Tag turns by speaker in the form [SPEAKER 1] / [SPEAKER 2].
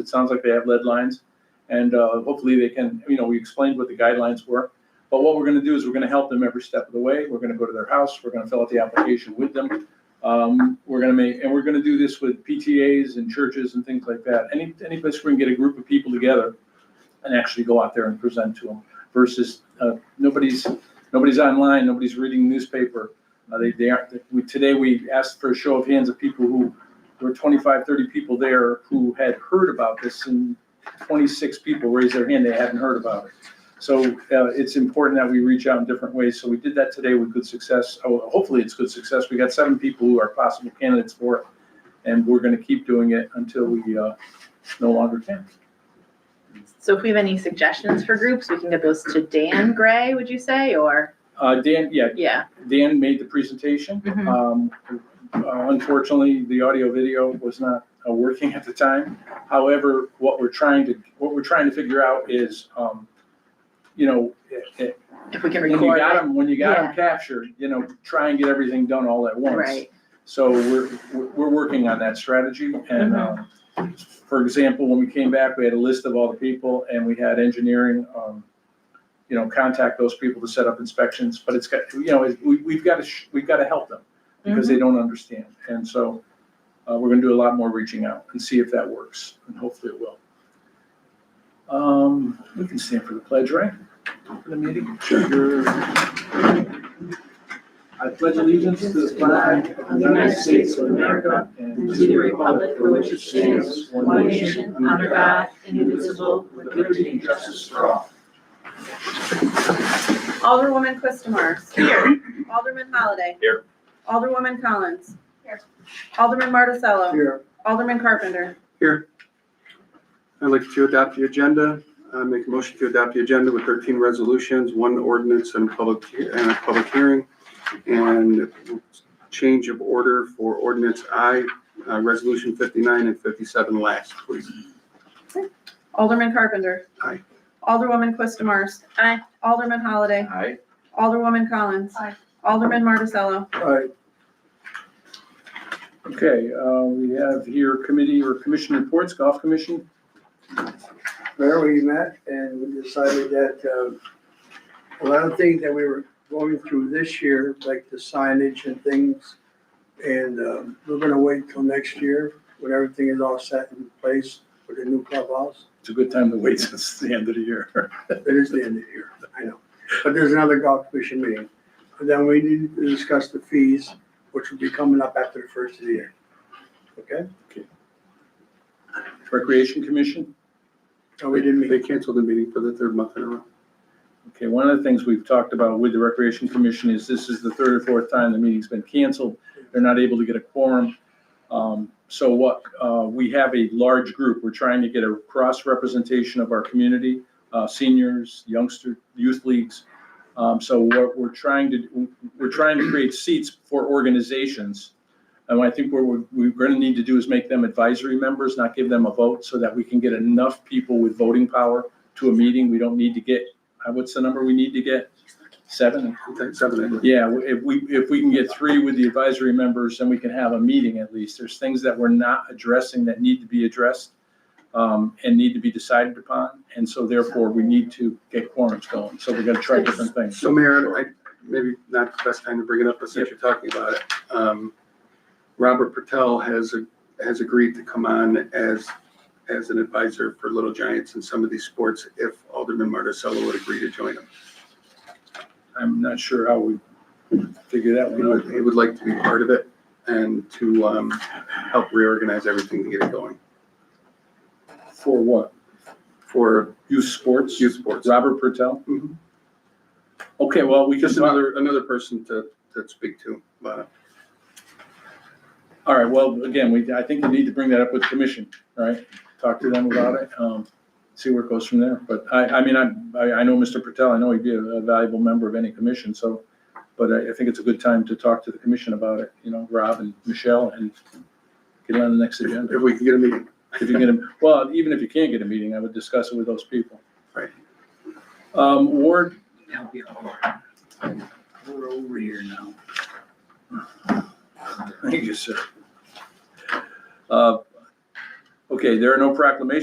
[SPEAKER 1] It sounds like they have lead lines, and uh, hopefully they can, you know, we explained what the guidelines were. But what we're going to do is we're going to help them every step of the way. We're going to go to their house, we're going to fill out the application with them. Um, We're going to make, and we're going to do this with PTAs and churches and things like that. Any, any place where we can get a group of people together and actually go out there and present to them versus uh, nobody's, nobody's online, nobody's reading newspaper. Uh, They, they aren't, we- today we asked for a show of hands of people who there were 25, 30 people there who had heard about this, and 26 people raised their hand, they hadn't heard about it. So uh, it's important that we reach out in different ways, so we did that today with good success, Oh, hopefully it's good success, we got seven people who are possible candidates for it, and we're gonna keep doing it until we uh, no longer can.
[SPEAKER 2] So if we have any suggestions for groups, we can get those to Dan Gray, would you say, or,
[SPEAKER 1] Uh, Dan, yeah,
[SPEAKER 2] yeah,
[SPEAKER 1] Dan made the presentation.
[SPEAKER 2] Mhm.
[SPEAKER 1] Um, uh, Unfortunately, the audio video was not uh, working at the time. However, what we're trying to, what we're trying to figure out is, um, you know, i- i-
[SPEAKER 2] if we can
[SPEAKER 1] when you
[SPEAKER 2] record
[SPEAKER 1] got
[SPEAKER 2] it.
[SPEAKER 1] them, when you got
[SPEAKER 2] Yeah.
[SPEAKER 1] them captured, you know, try and get everything done all at once.
[SPEAKER 2] Right,
[SPEAKER 1] So we're, we're, we're working on that strategy
[SPEAKER 2] Mm-hmm.
[SPEAKER 1] and, um, for example, when we came back, we had a list of all the people and we had engineering, um, you know, contact those people to set up inspections, but it's got, you know, it- we, we've got to, sh- we've got to help them because they don't understand. And so, uh, we're gonna do a lot more reaching out and see if that works and hopefully it will. Um, we can stand for the pledge, right? For the meeting? Sure. I pledge allegiance to the flag of the United States of America and to the republic for which it stands, one nation, under God, indivisible, with liberty and justice for all.
[SPEAKER 3] Alderwoman Quistamars. Here. Alderman Holliday.
[SPEAKER 1] Here.
[SPEAKER 3] Alderwoman Collins. Here. Alderman Marticello.
[SPEAKER 4] Here.
[SPEAKER 3] Alderman Carpenter.
[SPEAKER 4] I'd like to adopt the agenda. I make a motion to adopt the agenda with 13 resolutions, one ordinance and public, and a public hearing. And change of order for ordinance I, uh, resolution 59 and 57 last, please.
[SPEAKER 3] Alderman Carpenter.
[SPEAKER 4] Aye.
[SPEAKER 3] Alderwoman Quistamars.
[SPEAKER 2] Aye.
[SPEAKER 3] Alderman Holliday.
[SPEAKER 5] Aye.
[SPEAKER 3] Alderwoman Collins.
[SPEAKER 2] Aye.
[SPEAKER 3] Alderman Marticello.
[SPEAKER 1] Alright. Okay, uh, we have here committee or commission reports, golf commission.
[SPEAKER 6] There we met and we decided that uh, a lot of things that we were going through this year, like the signage and things, and um, we're gonna wait till next year when everything is all set in place for the new clubhouse.
[SPEAKER 1] It's a good time to wait since the end of the year.
[SPEAKER 6] It is the end of the year, I know. But there's another golf commission meeting. And then we need to discuss the fees, which will be coming up after the first of the year. Okay?
[SPEAKER 1] Recreation commission.
[SPEAKER 6] So we didn't meet.
[SPEAKER 4] They canceled the meeting for the third month in a row.
[SPEAKER 1] Okay, one of the things we've talked about with the recreation commission is this is the third or fourth time the meeting's been canceled. They're not able to get a quorum. Um, so what, uh, we have a large group. We're trying to get a cross representation of our community, uh, seniors, youngster, youth leagues. Um, so what we're trying to, we're trying to create seats for organizations. And I think what we're, we're gonna need to do is make them advisory members, not give them a vote, so that we can get enough people with voting power to a meeting. We don't need to get, uh, what's the number we need to get? Seven?
[SPEAKER 4] I think Seven, I believe.
[SPEAKER 1] Yeah, w- if we, if we can get three with the advisory members, then we can have a meeting at least. There's things that we're not addressing that need to be addressed um, and need to be decided upon, and so therefore we need to get quorums going. So we're gonna try different things.
[SPEAKER 4] So Mayor, I, maybe not the best time to bring it up, but since you're talking about it, um, Robert Patel has, has agreed to come on as, as an advisor for Little Giants in some of these sports if Alderman Marticello would agree to join him.
[SPEAKER 1] I'm not sure how we figure that
[SPEAKER 4] You
[SPEAKER 1] one out.
[SPEAKER 4] know, he would like to be part of it and to, um, help reorganize everything to get it going
[SPEAKER 1] For what?
[SPEAKER 4] for
[SPEAKER 1] Youth sports?
[SPEAKER 4] youth sports.
[SPEAKER 1] Robert Pertel?
[SPEAKER 4] Mhm.
[SPEAKER 1] Okay, well, we can,
[SPEAKER 4] Just another, another person to, to speak to, but
[SPEAKER 1] all right, well, again, we, I think we need to bring that up with the commission, all right? Talk to them about it, um, see where it goes from there. But I, I mean, I, I I know Mr. Pertel, I know he'd be a a valuable member of any commission, so, but I, I think it's a good time to talk to the commission about it, you know, Rob and Michelle, and get it on the next agenda.
[SPEAKER 4] if we can get a meeting.
[SPEAKER 1] If you get a, well, even if you can't get a meeting, I would discuss it with those people.
[SPEAKER 4] Right.
[SPEAKER 1] Um, Ward,
[SPEAKER 7] We're over here now.
[SPEAKER 1] Thank you, sir. Uh, Okay, there are no proclamations